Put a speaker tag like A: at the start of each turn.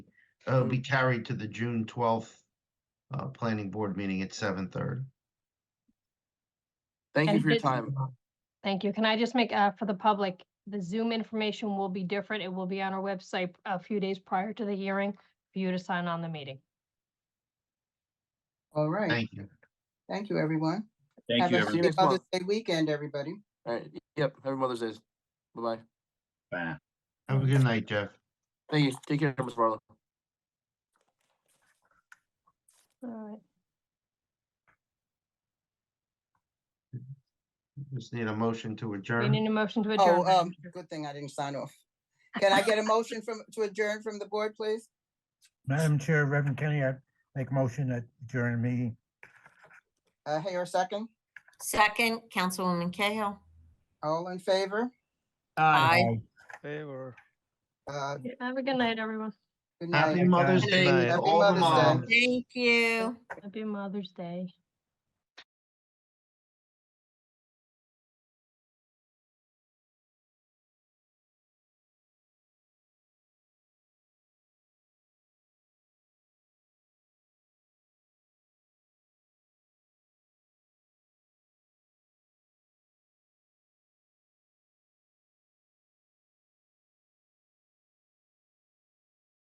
A: it'll be carried to the June twelfth uh, planning board meeting at seven thirty.
B: Thank you
C: And
B: for your
C: this-
B: time.
C: Thank you. Can I just make, uh, for the public, the Zoom information will be different. It will be on our website a few days prior to the hearing for you to sign on the meeting.
D: All right.
A: Thank you.
D: Thank you, everyone.
E: Thank
D: Have
E: you,
D: a
B: See you
E: everyone.
D: happy
B: next
D: Mother's
B: month.
D: Day weekend, everybody.
B: All right. Yep. Happy Mother's Day. Bye-bye.
E: Bye.
A: Have a good night, Jeff.
B: Thank you. Take care, Mr. Barlow.
C: All right.
A: Just need a motion to
C: We
A: adjourn.
C: need a motion to adjourn.
D: Oh,
C: Madam
D: um,
C: Chair.
D: good thing I didn't sign off. Can I get a motion from, to adjourn from the board, please?
F: Madam Chair, Reverend Kenny, I make motion that during meeting.
D: Uh, Hayer, second.
G: Second, Councilwoman Cahill.
D: All in favor?
G: Aye.
H: Favor.
D: Uh,
C: Yeah, Have a good night, everyone.
D: good
A: Happy
D: night.
A: Mother's Day
D: Happy
A: to all the
D: Mother's Day.
A: moms.
G: Thank you.
C: Happy Mother's Day.